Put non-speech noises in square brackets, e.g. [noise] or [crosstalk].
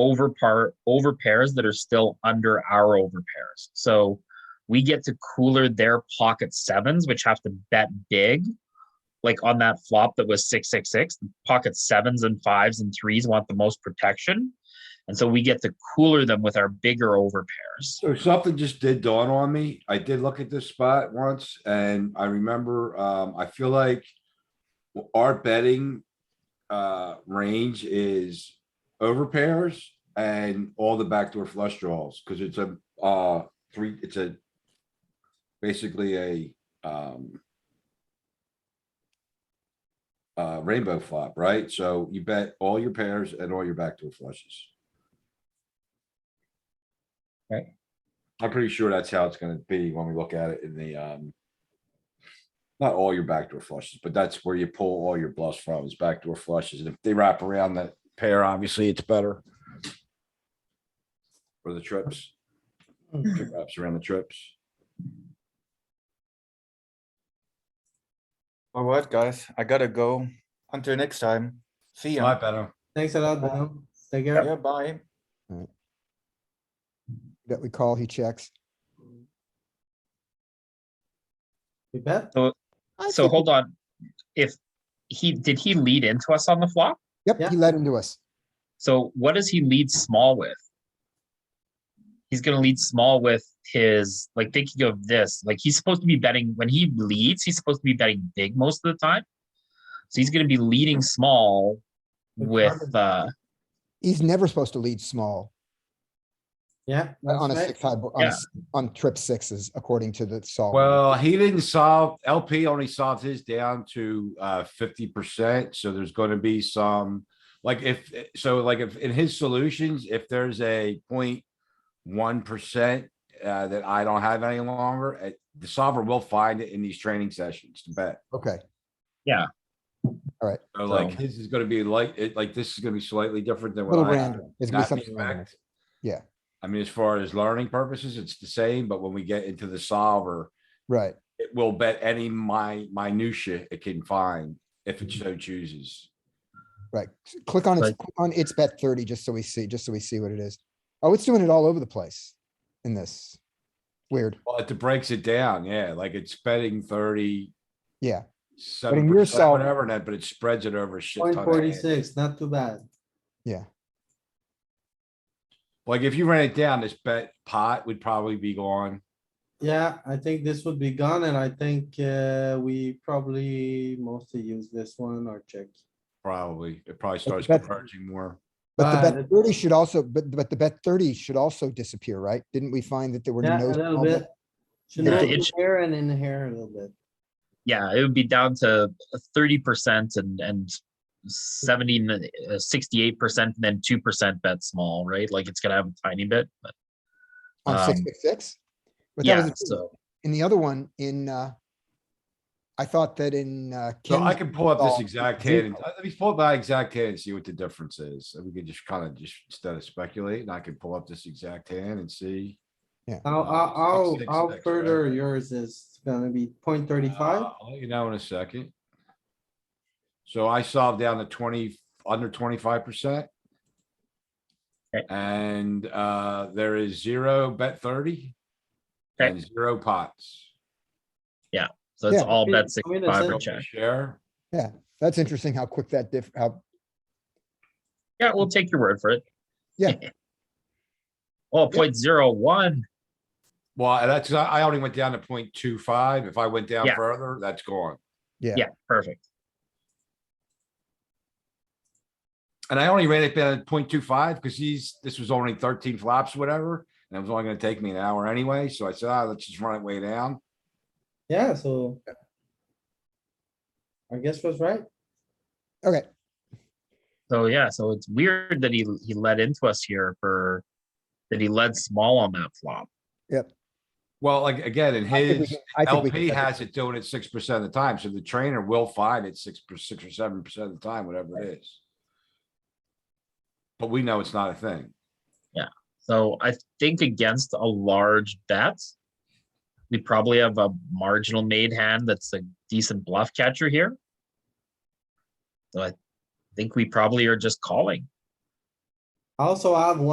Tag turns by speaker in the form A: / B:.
A: over par over pairs that are still under our over pairs. So we get to cooler their pocket sevens, which have to bet big. Like on that flop that was six six six, pocket sevens and fives and threes want the most protection. And so we get to cooler them with our bigger over pairs.
B: So something just did dawn on me. I did look at this spot once and I remember, um, I feel like our betting uh, range is over pairs and all the backdoor flush draws, because it's a, uh, three, it's a basically a, um, uh, rainbow flop, right? So you bet all your pairs and all your backdoor flushes.
A: Right.
B: I'm pretty sure that's how it's gonna be when we look at it in the, um, not all your backdoor flushes, but that's where you pull all your bluffs from is backdoor flushes. And if they wrap around that pair, obviously it's better. For the trips. Trip Wraps around the trips.
C: All right, guys, I gotta go. Until next time. See ya.
B: better.
D: Thanks a lot, Bono. Take care.
C: Yeah, bye.
E: that we call, he checks.
D: We bet.
E: I
A: So
E: think-
A: hold on. If he did he lead into us on the flop?
E: Yep,
D: Yeah.
E: he led into us.
A: So what does he lead small with? He's gonna lead small with his like thinking of this. Like he's supposed to be betting when he leads, he's supposed to be betting big most of the time. So he's gonna be leading small with uh
E: He's never supposed to lead small uh,
D: Yeah.
E: on a
D: that's
E: six
D: right.
E: high, bo- on, a
A: Yeah.
E: s- on trip sixes, according to the solver.
B: Well, he didn't solve, LP only solved his down to uh fifty percent, so there's gonna be some. Like if, so like if in his solutions, if there's a point one percent uh that I don't have any longer, eh, the solver will find it in these training sessions to bet.
E: Okay,
B: So like
A: So-
B: his is gonna be like, it like this is gonna be slightly different than what
E: little
B: I have.
E: random. It's
B: in
E: gonna be
B: that
E: something random.
B: respect.
E: Yeah.
B: I mean, as far as learning purposes, it's the same, but when we get into the solver,
E: Right,
B: it will bet any my minutia it can find if it so chooses.
E: right. S- Click on its,
A: Right.
E: click on its bet thirty, just so we see, just so we see what it is. Oh, it's doing it all over the place in this. Weird.
B: Well, it breaks it down, yeah, like it's betting thirty,
E: Yeah,
B: seven
E: you're
B: percent,
E: solving-
B: whatever, and that, but it spreads it over a shit
D: Point
B: ton of hands.
D: forty-six, not too bad.
E: yeah.
B: Like if you ran it down, this bet pot would probably be gone.
D: Yeah, I think this would be gone and I think uh, we probably mostly use this one or check.
B: Probably, it probably starts
E: bet-
B: converging more.
E: But the
D: But-
E: bet thirty should also, but, but the bet thirty should also disappear, right? Didn't we find that there were no?
D: Yeah, a little
E: small bet-
D: bit. Should
A: Yeah,
D: not
A: it
D: be
A: sh-
D: here and in here a little bit.
A: yeah, it would be down to thirty percent and and 70 68 percent and then two percent bet small, right? Like it's gonna have a tiny bit, but
E: On six,
A: Um,
E: six, six? But that was
A: yeah,
E: a-
A: so
E: in the other one in, uh, I thought that in, uh.
B: So I
E: Ken's-
B: can pull up this
E: solve
B: exact
E: zero.
B: hand, and- let me pull up that exact hand and see what the difference is, and we could just kind of just, instead of speculating, I can pull up this exact hand and see.
D: How,
B: Uh,
D: how, how-
B: six,
D: how
B: six,
D: further
B: right?
D: yours is gonna be point
B: Uh,
D: thirty-five?
B: I'll let you know in a second. So I solved down to twenty, under twenty-five percent.
A: Okay.
B: And, uh, there is zero bet thirty.
A: Okay.
B: And zero pots.
A: so it's
E: Yeah.
A: all
D: Wait,
A: bet
D: wait
A: sixty
D: a
A: five or
D: second.
A: check.
B: Share,
E: That's interesting how quick that diff, how,
A: Yeah, we'll take your word for it. [laughs]
E: Yeah.
A: Oh, point zero one.
B: well, that's, I I only went down to point two five. If I went down
A: Yeah.
B: further, that's gone.
E: yeah.
A: Yeah, perfect.
B: And I only ran it down at point two five because he's, this was only thirteen flops, whatever, and it was only gonna take me an hour anyway, so I said, ah, let's just run it way down.
D: Yeah, so. I guess was right.
E: Okay,
A: So yeah, so it's weird that he he led into us here for that he led small on that flop.
B: Well, like, again, in
E: I think we
B: his,
E: can- I think we can
B: LP
E: check it.
B: has it doing it six percent of the time, so the trainer will find it six per six or seven percent of the time, whatever it is. But we know it's not a thing.
A: So I think against a large bet, we probably have a marginal made hand that's a decent bluff catcher here. So I think we probably are just calling.
D: I also have one.